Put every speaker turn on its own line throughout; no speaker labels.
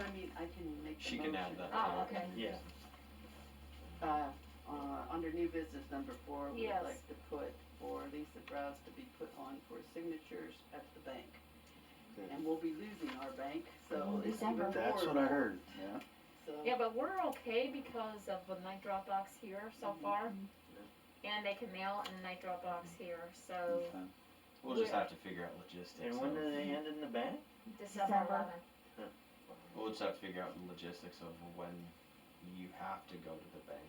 I mean, I can make
She
the motion.
can add that.
Oh, okay.
Yeah,
Uh, uh, under new business number four, we'd
Yes.
like to put for Lisa Browse to be put on for signatures at the bank. And we'll be losing our bank, so
In
it's even more.
December.
That's what I heard, yeah.
So,
Yeah, but we're okay because of the night drop box here so far. And they can mail in the night drop box here, so
Okay.
we'll just
Yeah.
have to figure out logistics.
And when
of-
do they end in the bank?
December
December.
eleventh.
We'll just have to figure out the logistics of when you have to go to the bank.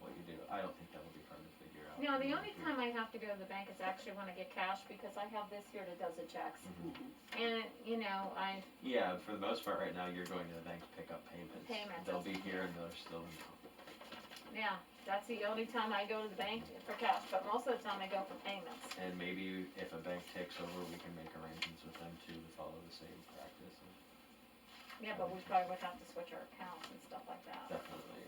What you do, I don't think that would be hard to figure out.
No, the
Mm-hmm.
only time I have to go to the bank is actually when I get cash because I have this here that does the checks.
Mhm.
And, you know, I,
Yeah, for the most part, right now, you're going to the bank to pick up payments.
Payments.
They'll be here and they're still in.
yeah, that's the only time I go to the bank for cash, but most of the time I go for payments.
And maybe if a bank takes over, we can make arrangements with them too to follow the same practice,
Yeah, but we probably would have to switch our accounts and stuff like that,
definitely.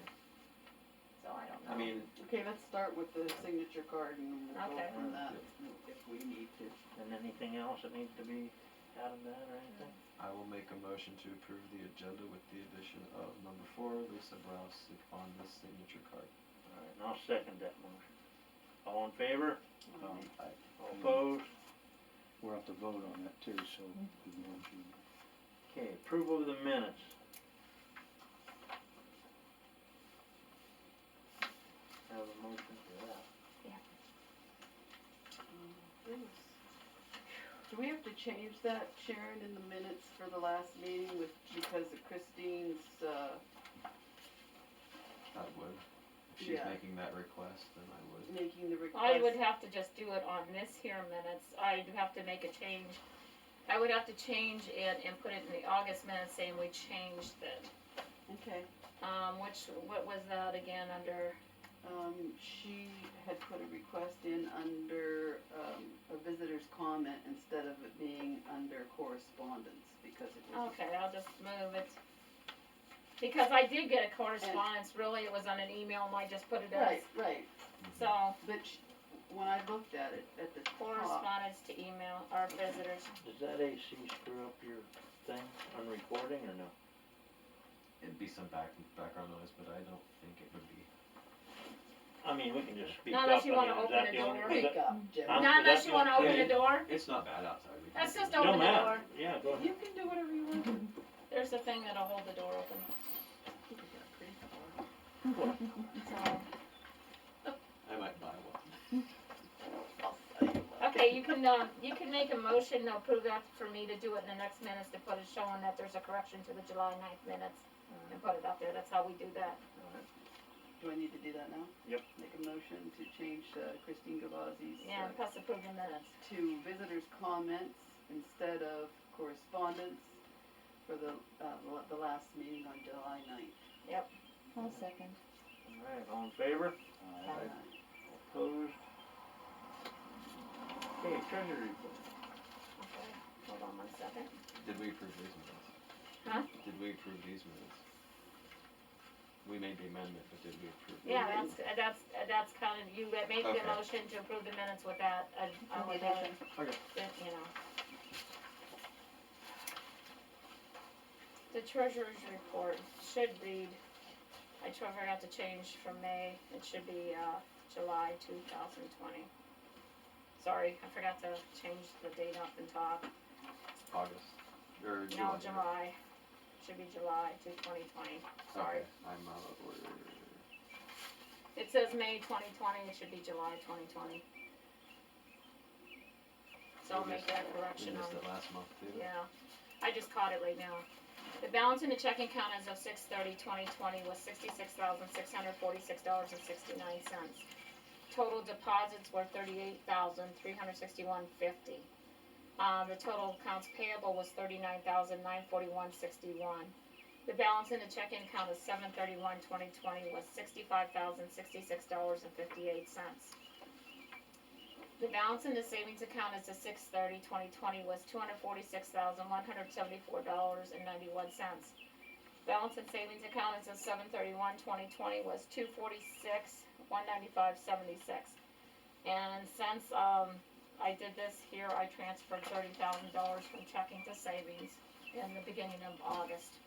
so I don't know.
I mean,
Okay, let's start with the signature card and we'll go
Okay.
from that if we need to.
And anything else that needs to be out of that or anything?
I will make a motion to approve the agenda with the addition of number four, Lisa Brouse on the signature card.
Alright, and I'll second that motion. All in favor?
Oh,
Um,
All opposed?
We'll have to vote on that too, so. we can vote you.
Okay, approval of the minutes. Have a motion for that.
Do we have to change that, Sharon, in the minutes for the last meeting with, because of Christine's, uh,
I would. If she's
Yeah.
making that request, then I would.
making the request?
I would have to just do it on this here minutes, I'd have to make a change. I would have to change it and put it in the August minutes saying we changed it.
Okay,
Um, which, what was that again, under,
um, she had put a request in under, um, a visitor's comment instead of it being under correspondence because it was.
okay, I'll just move it. Because I did get a correspondence, really, it was on an email and I just put it as,
Right, right,
so
but sh- when I looked at it, at the top,
correspondence to email, our visitors.
Does that AC screw up your thing on recording or no?
It'd be some back, background noise, but I don't think it would be.
I mean, we can just speak
Not
up.
unless you
I
wanna
mean, is
open
that
the
only-
door.
is
pick
that-
up, Jim.
Um,
Not unless you wanna open the door,
It's not bad outside. we can
That's
do
just
it.
open
No
the
matter,
door.
yeah, go ahead.
You can do whatever you want.
there's a thing that'll hold the door open,
You can get pretty far.
so.
I might buy one.
Okay, you can, um, you can make a motion to approve that for me to do it in the next minutes to put it showing that there's a correction to the July ninth minutes. And put it up there, that's how we do that.
Do I need to do that now?
Yep.
Make a motion to change uh, Christine Gavazzi's
Yeah,
uh,
plus approve the minutes.
to visitors' comments instead of correspondence for the, uh, la- the last meeting on July ninth.
I'll second.
Alright, all in favor?
All right.
Opposed? Okay, treasury report.
Okay, hold on one second.
Did we approve these minutes?
Huh?
Did we approve these minutes? We made the amendment, but did we approve? them?
Yeah, that's, uh, that's, uh, that's kind of, you let- make the
Okay.
motion to approve the minutes with that, uh, uh, with that,
Okay.
that, you know. The treasurer's report should read, I tried out to change from May, it should be, uh, July two thousand twenty. Sorry, I forgot to change the date up and top,
August, or July.
no, July, should be July two twenty twenty, sorry.
Okay, I'm out of order.
It says May twenty twenty, it should be July twenty twenty. So I'll
We
make
missed-
that
We
correction on,
missed it last month too.
yeah, I just caught it right now. The balance in the checking account as of six thirty twenty twenty was sixty-six thousand, six hundred forty-six dollars and sixty-nine cents. Total deposits were thirty-eight thousand, three hundred sixty-one fifty. Um, the total accounts payable was thirty-nine thousand, nine forty-one sixty-one. The balance in the checking account of seven thirty-one twenty twenty was sixty-five thousand, sixty-six dollars and fifty-eight cents. The balance in the savings account as of six thirty, twenty twenty was two hundred forty-six thousand, one hundred seventy-four dollars and ninety-one cents. Balance in savings account as of seven thirty-one, twenty twenty was two forty-six, one ninety-five, seventy-six. And since, um, I did this here, I transferred thirty thousand dollars from checking to savings in the beginning of August.